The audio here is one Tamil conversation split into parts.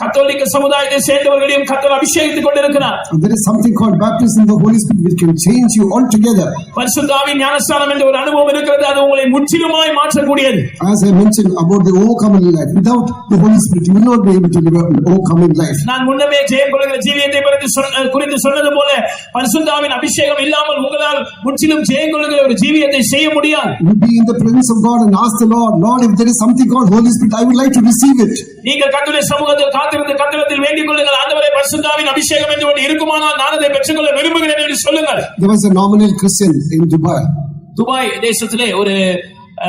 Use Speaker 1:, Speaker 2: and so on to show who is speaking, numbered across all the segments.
Speaker 1: கத்தோலிக்க சமுதாயத்தை சேர்ந்தவர்களையும் கத்தர் அபிஷேகித்துக் கொண்டிருக்கிறார்
Speaker 2: There is something called baptism in the Holy Spirit which can change you altogether.
Speaker 1: பரிசுத்தாவின் ஞானஸ்தானம் என்ற ஒரு அனுபவம் இருக்கிறது அது உங்களை முற்றிலுமாய் மாற்றக்கூடியது
Speaker 2: As I mentioned about the overcoming life, without the Holy Spirit, you will not be able to live an overcoming life.
Speaker 1: நான் முன்னமே ஜெயம் கொள்கிற ஜீவியத்தை பற்றி சொன்ன- குறித்து சொன்னது போல பரிசுத்தாவின் அபிஷேகம் இல்லாமல் உங்களால் முற்றிலும் ஜெயம் கொள்கிற ஒரு ஜீவியத்தை செய்ய முடியாது
Speaker 2: You be in the presence of God and ask the Lord, Lord, if there is something called Holy Spirit, I would like to receive it.
Speaker 1: நீங்கள் கத்துடைய சமூகத்தில் காத்திருந்து கத்திரத்தில் வேண்டிக் கொள்ளுங்கள் ஆண்டவரை பரிசுத்தாவின் அபிஷேகம் என்று ஒன்று இருக்குமானால் நான் அதை பெற்றுக்கொள்ள விரும்புகிறேன் என்று சொல்லுங்கள்
Speaker 2: There was a nominal Christian in Dubai.
Speaker 1: Dubai தேசத்திலே ஒரு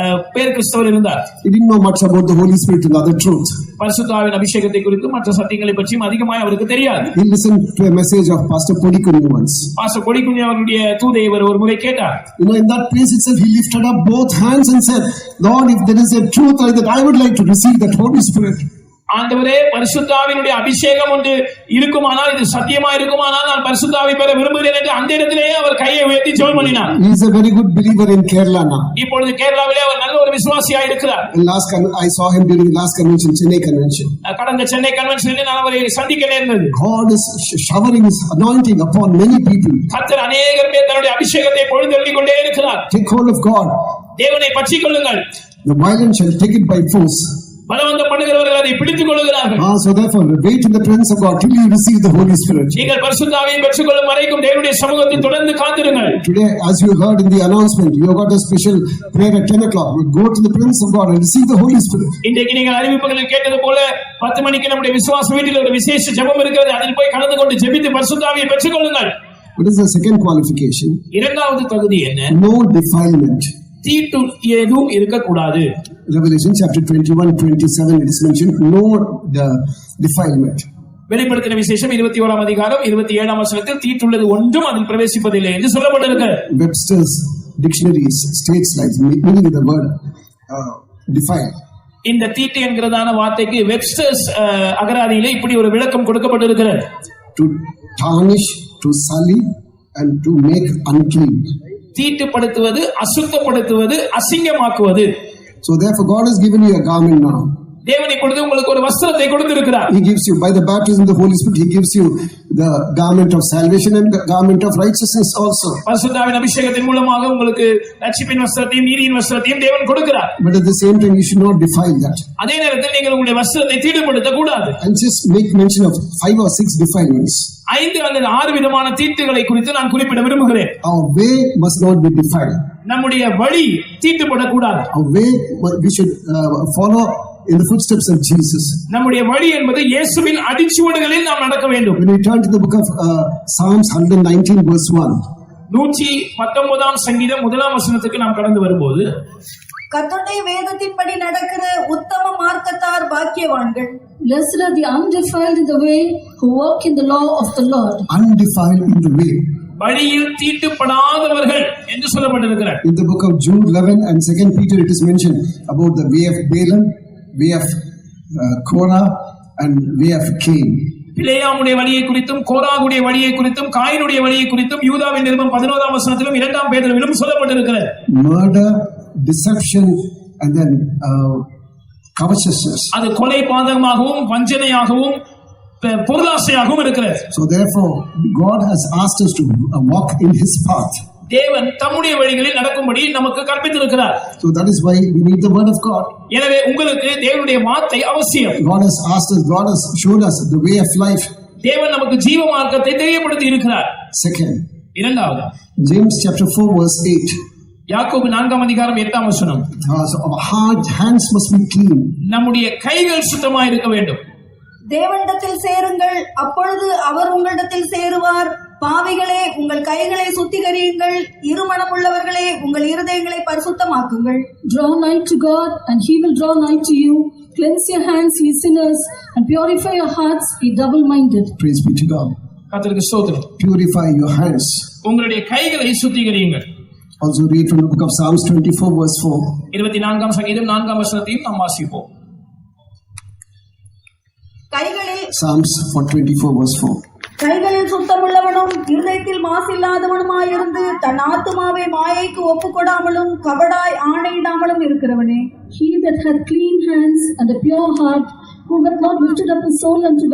Speaker 1: அஹ், பேர் கிறிஸ்தவர் இருந்தார்
Speaker 2: He didn't know much about the Holy Spirit and other truth.
Speaker 1: பரிசுத்தாவின் அபிஷேகத்தை குறித்து மற்ற சத்தியங்களை பற்றியும் அதிகமாய் அவருக்கு தெரியாது
Speaker 2: He listened to a message of Pastor Podikuni once.
Speaker 1: பாச கொடிக்குஞ்சி அவருடைய தூதை இவர் ஒரு முறை கேட்டார்
Speaker 2: You know, in that place itself, he lifted up both hands and said, Lord, if there is a truth like that, I would like to receive that Holy Spirit.
Speaker 1: ஆண்டவரே பரிசுத்தாவினுடைய அபிஷேகம் ஒன்று இருக்குமானால் இது சத்தியமா இருக்குமானால் நான் பரிசுத்தாவை பெற விரும்புகிறேன் என்று அந்த இடத்திலேயே அவர் கையை உயர்த்தி ஜெபம் பண்ணினார்
Speaker 2: He is a very good believer in Kerala now.
Speaker 1: இப்பொழுது கேரளாவிலே அவர் நல்ல ஒரு விசுவாசியா இருக்கிறார்
Speaker 2: And last con- I saw him during the last convention, Chennai convention.
Speaker 1: அஹ் கடந்த சென்னை கன்வென்ஷனில் நான் அவரை சந்திக்க நேர்ந்தது
Speaker 2: God is sh- showering His anointing upon many people.
Speaker 1: கர்த்தர் அநேகர் பேர் தன்னுடைய அபிஷேகத்தை பொழுதெழுதி கொண்டே இருக்கிறார்
Speaker 2: Take hold of God.
Speaker 1: தேவனை பற்றிக் கொள்ளுங்கள்
Speaker 2: The violent shall take it by force.
Speaker 1: பலவந்தம் பண்ணுகிறவர்கள் அதை பிடித்துக் கொள்ளுகிறார்கள்
Speaker 2: Ah, so therefore, wait in the presence of God till you receive the Holy Spirit.
Speaker 1: நீங்கள் பரிசுத்தாவை பெற்றுக்கொள்ளும் வரைக்கும் தேவனுடைய சமூகத்தில் தொடர்ந்து காத்திருங்கள்
Speaker 2: Today, as you heard in the announcement, you have got a special prayer at 10 o'clock. You Go to the presence of God and receive the Holy Spirit.
Speaker 1: இன்றைக்கு நீங்கள் அறிவிப்புகளில் கேட்டது போல பத்து மணிக்கு நம்முடைய விசுவாச வீட்டில் ஒரு விசேஷ ஜெபம் இருக்கிறது அதில் போய் கலந்து கொண்டு ஜெபித்து பரிசுத்தாவியை பெற்றுக்கொள்ளுங்கள்
Speaker 2: What is the second qualification?
Speaker 1: இரண்டாவது தகுதி என்ன
Speaker 2: No defilement.
Speaker 1: தீட்டு எதுவும் இருக்கக்கூடாது
Speaker 2: Revelation chapter 21, 27, it is mentioned, no the defilement.
Speaker 1: வெளிப்படுத்தின விசேஷம் இருபத்தி ஓராம் அதிகாரம் இருபத்தி ஏழாம் வசனத்தில் தீட்டுள்ளது ஒன்றும் அதில் பிரவேசிப்பதில்லை என்று சொல்லப்பட்டிருக்கு
Speaker 2: Webster's dictionaries states like meaning the word uh, defile.
Speaker 1: இந்த தீட்டு என்கிறதான வார்த்தைக்கு வெப்ஸ்டர்ஸ் அஹ், அகராதியிலே இப்படி ஒரு விளக்கம் கொடுக்கப்பட்டிருக்கிறது
Speaker 2: To tarnish, to sully, and to make unclean.
Speaker 1: தீட்டுப்படுத்துவது அசுத்தப்படுத்துவது அசிங்கமாக்குவது
Speaker 2: So therefore, God has given you a garment now.
Speaker 1: தேவனை கொடுத்து உங்களுக்கு ஒரு வஸ்திரத்தை கொடுத்திருக்கிறார்
Speaker 2: He gives you by the baptism of the Holy Spirit. He gives you the garment of salvation and the garment of righteousness also.
Speaker 1: பரிசுத்தாவின் அபிஷேகத்தின் மூலமாக உங்களுக்கு லட்சிப்பின் வஸ்திரத்தையும் நீரியின் வஸ்திரத்தையும் தேவன் கொடுக்கிறார்
Speaker 2: But at the same time, you should not defile that.
Speaker 1: அதே நேரத்தில் நீங்கள் உங்களுடைய வஸ்திரத்தை தீட்டுப்படுத்த கூடாது
Speaker 2: I'll just make mention of five or six defilements.
Speaker 1: ஐந்து அல்லது ஆறு விதமான தீட்டுகளை குறித்து நான் குறிப்பிட விரும்புகிறேன்
Speaker 2: Our way must not be defiled.
Speaker 1: நம்முடைய வழி தீட்டுப்படக்கூடாது
Speaker 2: Our way we should uh, follow in the footsteps of Jesus.
Speaker 1: நம்முடைய வழி என்பது இயேசுவின் அடிச்சுவடுகளில் நாம் நடக்க வேண்டும்
Speaker 2: When we turn to the book of uh, Psalms 119, verse 1,
Speaker 1: நூற்றி பத்தொன்பதாம் சங்கீதம் முதலாம் வசனத்துக்கு நாம் கடந்து வரும்போது
Speaker 3: கர்த்தருடைய வேதத்தின்படி நடக்கிற உத்தம மார்க்கத்தார் பாக்கியவான்கள்
Speaker 4: Blessed are the undefiled in the way who walk in the law of the Lord.
Speaker 2: undefiled in the way.
Speaker 1: வழியில் தீட்டுப்படாதவர்கள் என்று சொல்லப்பட்டிருக்கிறார்
Speaker 2: In the book of Jude 11 and 2 Peter, it is mentioned about the way of Balaam, way of uh, Korah, and way of Cain.
Speaker 1: பிளேயாமுடைய வழியை குறித்தும் கோராகுடைய வழியை குறித்தும் காயினுடைய வழியை குறித்தும் யூதாவின் நிருபம் பதினோராம் வசனத்திலும் இரண்டாம் பேரிலும் சொல்லப்பட்டிருக்கிறது
Speaker 2: Murder, deception, and then uh, covetousness.
Speaker 1: அது கொலை பாதகமாகவும் வஞ்சனையாகவும் பெ- பொருளாசையாகவும் இருக்கிறது
Speaker 2: So, therefore, God has asked us to uh, walk in His path.
Speaker 1: தேவன் தம்முடைய வழிகளில் நடக்கும்படி நமக்கு கற்பித்திருக்கிறார்
Speaker 2: So that is why we need the word of God.
Speaker 1: எனவே உங்களுக்கு தேவனுடைய வார்த்தை அவசியம்
Speaker 2: God has asked us, God has showed us the way of life.
Speaker 1: தேவன் நமக்கு ஜீவ மார்க்கத்தை தெரியப்படுத்தி இருக்கிறார்
Speaker 2: Second,
Speaker 1: இரண்டாவது
Speaker 2: James chapter 4, verse 8.
Speaker 1: யாக்கோபு நான்காம் அதிகாரம் எட்டாம் வசனம்
Speaker 2: Uh, so our heart, hands must be clean.
Speaker 1: நம்முடைய கைகள் சுத்தமா இருக்க வேண்டும்
Speaker 3: தேவனிடத்தில் சேருங்கள் அப்பொழுது அவர் உங்களிடத்தில் சேருவார் பாவிகளே உங்கள் கைகளை சுத்திகரியுங்கள் இருமனமுள்ளவர்களே உங்கள் இருதயங்களை பரிசுத்தமாக்குங்கள்
Speaker 4: Draw nigh to God, and He will draw nigh to you. Cleanse your hands, ye sinners, and purify your hearts, ye double minded.
Speaker 2: Praise be to God.
Speaker 1: கர்த்தருக்கு ஸ்தோத்திரம்
Speaker 2: Purify your hands.
Speaker 1: உங்களுடைய கைகளை சுத்திகரியுங்கள்
Speaker 2: Also read from the book of Psalms 24, verse 4.
Speaker 1: இருபத்தி நான்காம் சங்கீதம் நான்காம் வசனத்தையும் நாம் வாசிப்போம்
Speaker 3: கைகளில்
Speaker 2: Psalms 424, verse 4.
Speaker 3: கைகளில் சுத்தமுள்ளவனும் இருதயத்தில் மாசில்லாதவனுமாயிருந்து தன் ஆத்துமாவை மாயைக்கு ஒப்புக்கொடாமலும் கபடாய் ஆணையிடாமலும் இருக்கிறவனே
Speaker 4: He that hath clean hands and a pure heart, who hath not lifted up his soul unto